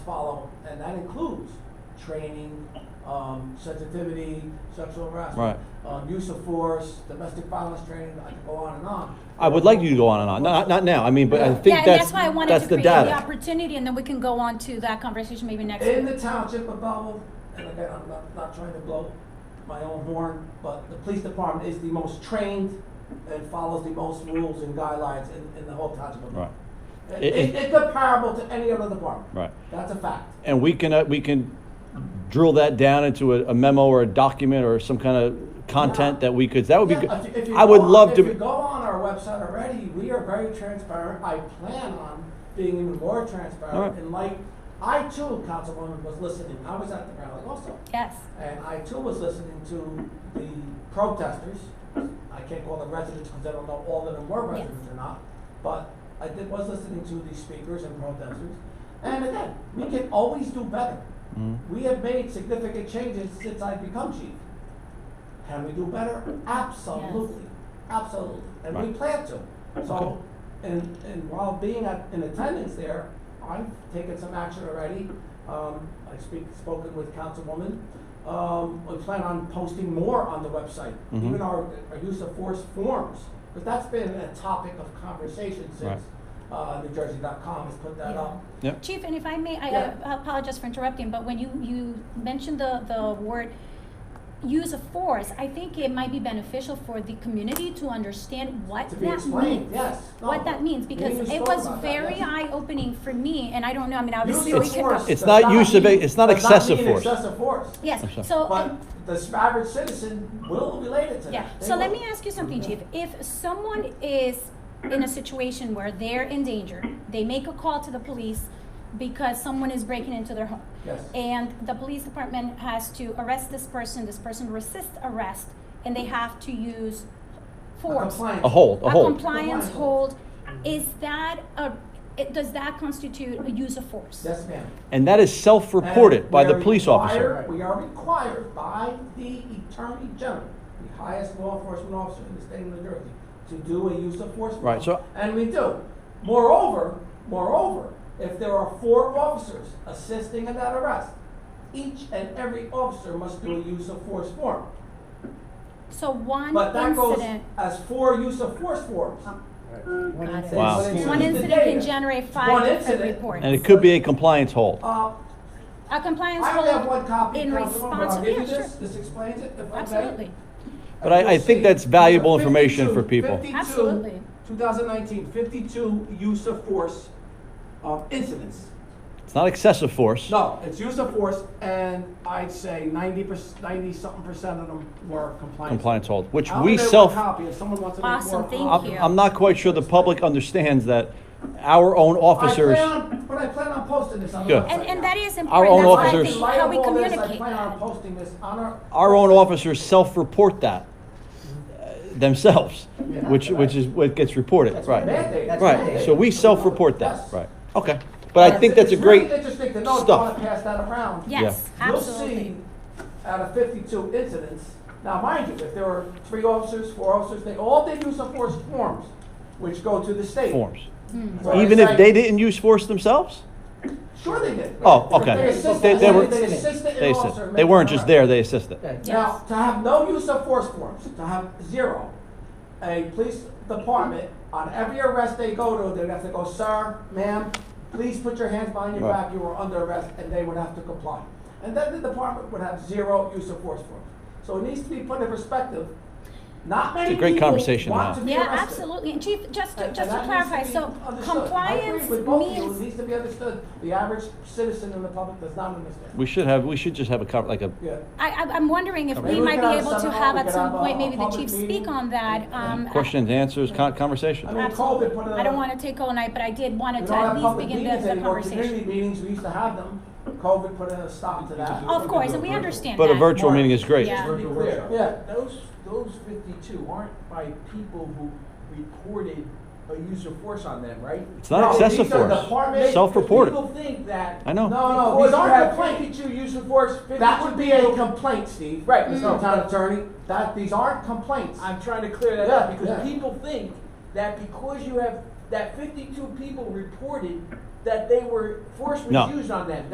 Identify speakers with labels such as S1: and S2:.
S1: follow, and that includes training, um, sensitivity, sexual harassment,
S2: Right.
S1: um, use of force, domestic violence training, I could go on and on.
S2: I would like you to go on and on, not, not now, I mean, but I
S3: Yeah,
S2: think
S3: and that's
S2: that's,
S3: why I wanted
S2: that's
S3: to
S2: the
S3: create the
S2: data.
S3: opportunity, and then we can go on to that conversation maybe next
S1: In
S3: week.
S1: the township of Belleville, and again, I'm not, not trying to blow my own horn, but the police department is the most trained and follows the most rules and guidelines in, in the whole township of
S2: Right,
S1: Belleville. It,
S2: It-
S1: it, it's comparable to any other department.
S2: right.
S1: That's a fact.
S2: And we can, uh, we can drill that down into a a memo or a document or some kind of content that we could, that would be,
S1: Yeah, if you- if
S2: good.
S1: you
S2: I would
S1: go on-
S2: love
S1: If you
S2: to,
S1: go on our website already, we are very transparent. I plan on being even more
S2: All right.
S1: transparent. And like, I too, Councilwoman, was listening. I was at the rally also.
S3: Yes,
S1: And I too was listening to the protesters. I can't call them residents because I don't know all of them were
S3: Yes.
S1: residents or not. But I did, was listening to the speakers and protesters. And again, we can always do better.
S2: Mm.
S1: We have made significant changes since I've become chief. Can we do better? Absolutely, absolutely. And we
S2: Right.
S1: plan to.
S2: Okay.
S1: So, and, and while being at, in attendance there, I've taken some action already. Um, I speak, spoken with councilwoman. Um, we plan on posting more on the website,
S2: Mhm.
S1: even our, our use of force forms. Because that's been a topic of conversation
S2: Right.
S1: since, uh, NewJersey.com has put that
S3: Yeah.
S1: up.
S2: Yep.
S3: Chief, and if I may, I
S1: Yeah.
S3: I apologize for interrupting, but when you, you mentioned the, the word use of force, I think it might be beneficial for the community to understand what
S1: To
S3: that
S1: be
S3: means.
S1: explained, yes. No,
S3: What that means,
S1: we
S3: because
S1: even
S3: it
S1: spoke
S3: was
S1: about that,
S3: very
S1: yes.
S3: eye-opening for me, and I don't know, I mean,
S1: Use
S3: obviously,
S1: of
S3: we could.
S1: force
S2: It's
S1: does
S2: not use of-
S1: mean-
S2: it's not
S1: does
S2: excessive
S1: mean
S2: force.
S1: excessive force.
S3: Yes,
S2: I'm sorry.
S3: so. um,
S1: But
S3: and-
S1: the average citizen will relate it to that.
S3: Yeah,
S1: They
S3: so let
S1: will.
S3: me ask you something, Chief. If someone is in a situation where they're in danger, they make a call to the police because someone is breaking into their home,
S1: Yes.
S3: and the police department has to arrest this person, this person resists arrest, and they have to use
S1: A
S3: force.
S1: compliance.
S2: a hold, a hold.
S1: Compliance.
S3: compliance hold, is that a, it- does that constitute a use of force?
S1: Yes, ma'am.
S2: And that is self-reported
S1: And
S2: by the
S1: we are
S2: police officer.
S1: required- We are required by the Attorney General, the highest law enforcement officer in the state of New Jersey, to do a use of force.
S2: Right, so-
S1: plan, And we do. Moreover, moreover, if there are four officers assisting in that arrest, each and every officer must do a use of force form.
S3: So one
S1: But that goes
S3: incident, Oh.
S1: as four use of force forms.
S3: Got it.
S2: Wow.
S3: one
S1: the
S3: incident can
S1: data.
S3: generate
S1: One
S3: five different
S1: incident.
S3: reports.
S2: And it could be a compliance hold.
S1: Uh,
S3: A compliance
S1: I
S3: hold.
S1: only have one copy, Councilwoman,
S3: in
S1: but I'll
S3: response-
S1: give you
S3: yeah,
S1: this,
S3: sure.
S1: this explains it, if I may.
S3: Absolutely.
S2: But I- I think
S1: You'll
S2: that's
S1: see
S2: valuable
S1: 52
S2: information for people.
S1: 52
S3: Absolutely.
S1: 2019, 52 use of force uh, incidents.
S2: It's not excessive force.
S1: No, it's use of force, and I'd say 90 percent, 90-something percent of them were compliance.
S2: Compliance hold, which
S1: I'll
S2: we
S1: give you a
S2: self,
S1: copy if someone wants to make
S3: Awesome,
S1: more
S3: thank
S1: copies.
S2: I'm,
S3: you.
S2: I'm not quite sure the public understands that our own officers.
S1: I plan on, but I plan on posting this on the
S2: Good.
S1: website.
S3: And, and
S1: now.
S3: that is
S2: Our own
S3: important, that's why I
S2: officers-
S3: think
S1: In light
S3: how
S1: of
S3: we
S1: all this, I
S3: communicate
S1: plan on
S3: that.
S1: posting this on our.
S2: our own
S1: website.
S2: officers self-report that uh, themselves,
S1: Yeah.
S2: which, which is what gets reported,
S1: That's
S2: right?
S1: mandate. That's
S2: Right,
S1: mandate.
S2: so we self-report that,
S1: Yes.
S2: right, okay. But I think that's a great,
S1: It's really interesting to know, if you
S2: stuff.
S1: wanna pass that around.
S3: Yes,
S2: Yeah.
S3: absolutely.
S1: You'll see, out of fifty-two incidents, now mind you, if there were three officers, four officers, they all did use of force forms, which go to the state.
S2: forms,
S1: So
S2: even
S1: it's
S2: if they
S1: like-
S2: didn't use force themselves?
S1: Sure they did.
S2: Oh,
S1: If
S2: okay.
S1: They assisted,
S2: They- they were-
S1: they assisted
S2: They
S1: an
S2: assist,
S1: officer.
S2: they
S1: make
S2: weren't
S1: an
S2: just
S1: arrest.
S2: there, they assisted.
S1: Now, to have no use of force forms, to have zero, a police department, on every arrest they go to, they'd have to go, sir, ma'am, please put your hands behind your
S2: Right.
S1: back, you are under arrest, and they would have to comply. And then the department would have zero use of force forms. So it needs to be put in perspective, not many
S2: a great
S1: people
S2: conversation to
S1: want
S2: have.
S1: to be
S3: Yeah,
S1: arrested.
S3: absolutely, and Chief, just, to-
S1: And-
S3: just
S1: and
S3: to
S1: that needs
S3: clarify,
S1: be
S3: so
S1: understood. I agree
S3: compliance
S1: with both of you. It
S3: means,
S1: needs to be understood, the average citizen in the public does not understand.
S2: We should have, we should just have a, cover- like a,
S1: Yeah.
S3: I, I- I'm wondering if
S2: Maybe
S3: we
S1: we
S3: might
S1: could
S3: be
S1: have a
S3: able to
S1: seminar,
S3: have
S1: we
S3: at
S1: could have
S3: some
S1: a-
S3: point, maybe
S1: a
S3: the
S1: public
S3: chief
S1: meeting.
S3: speak on that, um. I-
S2: questions, answers, con-
S1: I
S2: conversation.
S1: mean, COVID put a.
S3: I don't wanna take all night, but I did wanna
S1: We
S3: to
S1: don't
S3: at
S1: have
S3: least
S1: public
S3: begin
S1: meetings
S3: the, the
S1: anymore, community
S3: conversation.
S1: meetings, we used to have them, COVID put a stop to that.
S3: Of course, and we understand that.
S2: But a virtual meeting is great.
S3: Yeah.
S4: Just to be clear,
S1: Yeah.
S4: those, those fifty-two aren't by people who reported a use of force on them, right?
S2: It's
S1: No,
S2: not excessive
S1: these are
S2: force,
S1: department-
S2: self-reported.
S4: People think that.
S2: I know.
S1: No, no,
S4: Because
S1: these
S4: you
S1: aren't
S4: have
S1: complaints,
S4: fifty-two use of force, fifty-two.
S1: that would be a
S4: people-
S1: complaint, Steve.
S4: Right,
S1: Mr.
S4: no.
S3: Mm.
S1: Town Attorney, that, these aren't complaints.
S4: I'm trying to clear that
S1: Yeah,
S4: up,
S1: yeah.
S4: because people think that because you have, that fifty-two people reported that they were, force
S2: No.
S4: was used on them.